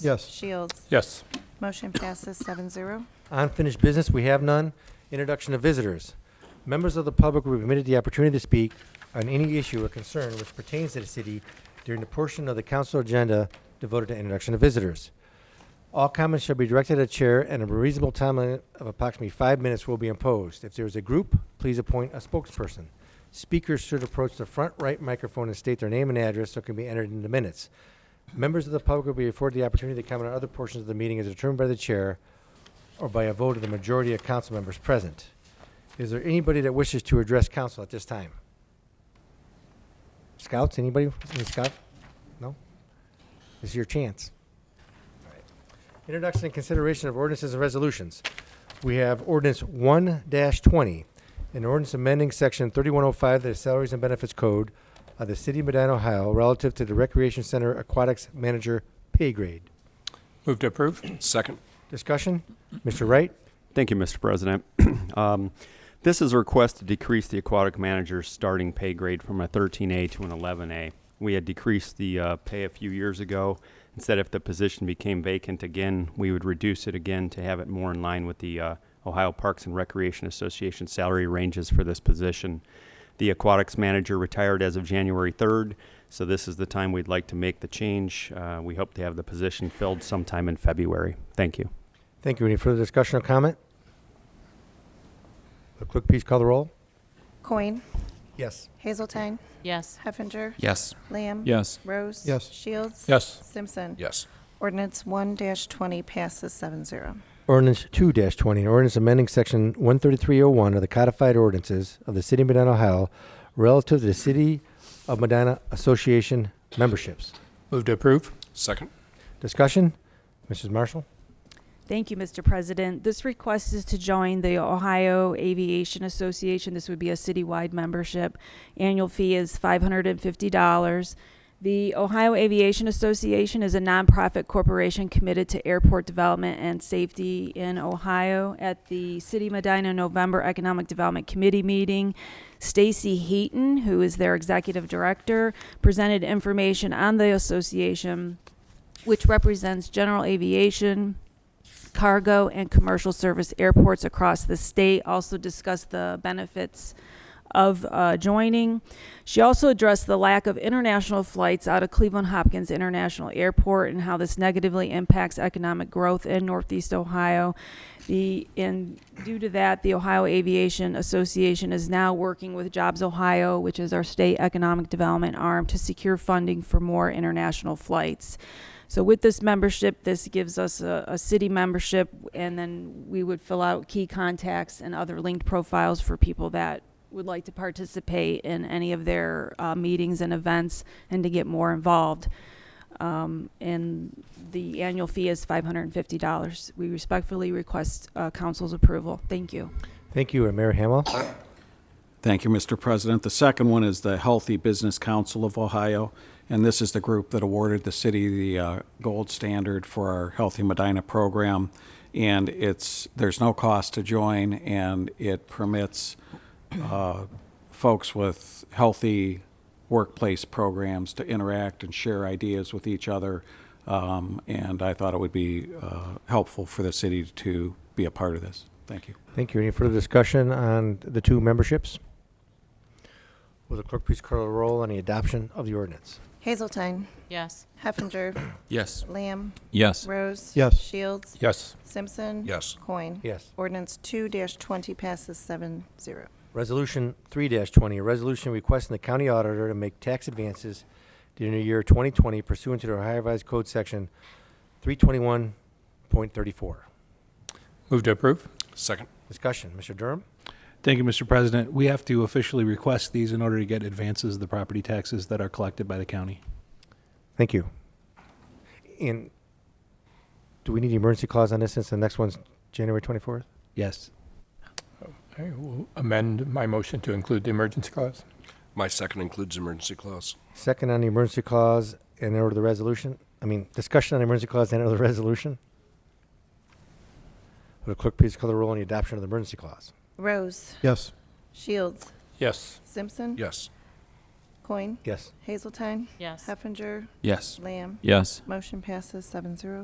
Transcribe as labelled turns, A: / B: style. A: Yes.
B: Shields.
C: Yes.
B: Motion passes seven zero.
A: Unfinished business, we have none. Introduction of visitors. Members of the public will be permitted the opportunity to speak on any issue or concern which pertains to the city during the portion of the council agenda devoted to introduction of visitors. All comments shall be directed at chair and a reasonable time limit of approximately five minutes will be imposed. If there is a group, please appoint a spokesperson. Speakers should approach the front right microphone and state their name and address so it can be entered into minutes. Members of the public will be afforded the opportunity to comment on other portions of the meeting as determined by the chair or by a vote of the majority of council members present. Is there anybody that wishes to address council at this time? Scouts, anybody? Any scout? No? This is your chance. All right. Introduction and consideration of ordinances and resolutions. We have ordinance one twenty, an ordinance amending section thirty-one oh five of the Salaries and Benefits Code of the City of Medina, Ohio, relative to the Recreation Center Aquatics Manager pay grade.
C: Move to approve?
D: Second.
A: Discussion? Mr. Wright?
E: Thank you, Mr. President. Um, This is a request to decrease the aquatic manager's starting pay grade from a 13A to an 11A. We had decreased the uh, pay a few years ago. Instead, if the position became vacant again, we would reduce it again to have it more in line with the uh, Ohio Parks and Recreation Association salary ranges for this position. The aquatics manager retired as of January 3rd, so this is the time we'd like to make the change. Uh, We hope to have the position filled sometime in February. Thank you.
A: Thank you. Any further discussion or comment? Will clerk please call the roll?
B: Coin.
A: Yes.
B: Hazeltine.
F: yes,
B: Heffinger.
D: Yes.
B: Lamb.
C: Yes.
B: Rose.
A: Yes.
B: Shields.
C: Yes.
B: Simpson.
D: Yes.
B: Ordinance one twenty passes seven zero.
A: Ordinance two twenty, an ordinance amending section one thirty-three oh one of the codified ordinances of the city of Medina, Ohio, relative to the city of Medina Association memberships.
C: Move to approve?
D: Second.
A: Discussion? Mrs. Marshall?
G: Thank you, Mr. President. This request is to join the Ohio Aviation Association. This would be a citywide membership. Annual fee is $550. The Ohio Aviation Association is a nonprofit corporation committed to airport development and safety in Ohio. At the City of Medina November Economic Development Committee meeting, Stacy Heaton, who is their executive director, presented information on the association, which represents general aviation, cargo and commercial service airports across the state also discussed the benefits of uh, joining. She also addressed the lack of international flights out of Cleveland Hopkins International Airport and how this negatively impacts economic growth in Northeast Ohio. The and due to that, the Ohio Aviation Association is now working with Jobs Ohio, which is our state economic development arm, to secure funding for more international flights. So with this membership, this gives us a, a city membership, and then we would fill out key contacts and other linked profiles for people that would like to participate in any of their uh, meetings and events and to get more involved. Um, and the annual fee is $550. We respectfully request uh, council's approval. Thank you.
A: Thank you. And Mayor Hamwell?
H: Thank you, Mr. President. The second one is the Healthy Business Council of Ohio, and this is the group that awarded the city the uh, gold standard for our Healthy Medina program. And it's, there's no cost to join, and it permits uh, folks with healthy workplace programs to interact and share ideas with each other. Um, And I thought it would be uh, helpful for the city to be a part of this. Thank you.
A: Thank you. Any further discussion on the two memberships? Will the clerk please call the roll on the adoption of the ordinance?
B: Hazeltine.
F: yes,
B: Heffinger.
D: Yes.
B: Lamb.
C: Yes.
B: Rose.
A: Yes.
B: Shields.
C: Yes.
B: Simpson.
D: Yes.
B: Coin.
A: Yes.
B: Ordinance two twenty passes seven zero.
A: Resolution three twenty, a resolution requesting the county auditor to make tax advances during the year twenty twenty pursuant to the Ohio Revised Code Section three twenty-one point thirty-four.
C: Move to approve?
D: Second.
A: Discussion, Mr. Durham?
I: Thank you, Mr. President. We have to officially request these in order to get advances of the property taxes that are collected by the county.
A: Thank you. And do we need the emergency clause on this since the next one's January twenty-fourth?
I: Yes.
C: I will amend my motion to include the emergency clause.
D: My second includes emergency clause.
A: Second on the emergency clause and order the resolution, I mean, discussion on the emergency clause and order the resolution? Will the clerk please call the roll on the adoption of the emergency clause?
B: Rose.
I: Yes.
B: Shields.
C: Yes.
B: Simpson.
D: Yes.
B: Coin.
A: Yes.
B: Hazeltine.
F: yes.
B: Heffinger.
D: Yes.
B: Lamb.
C: Yes.
B: Motion passes seven zero.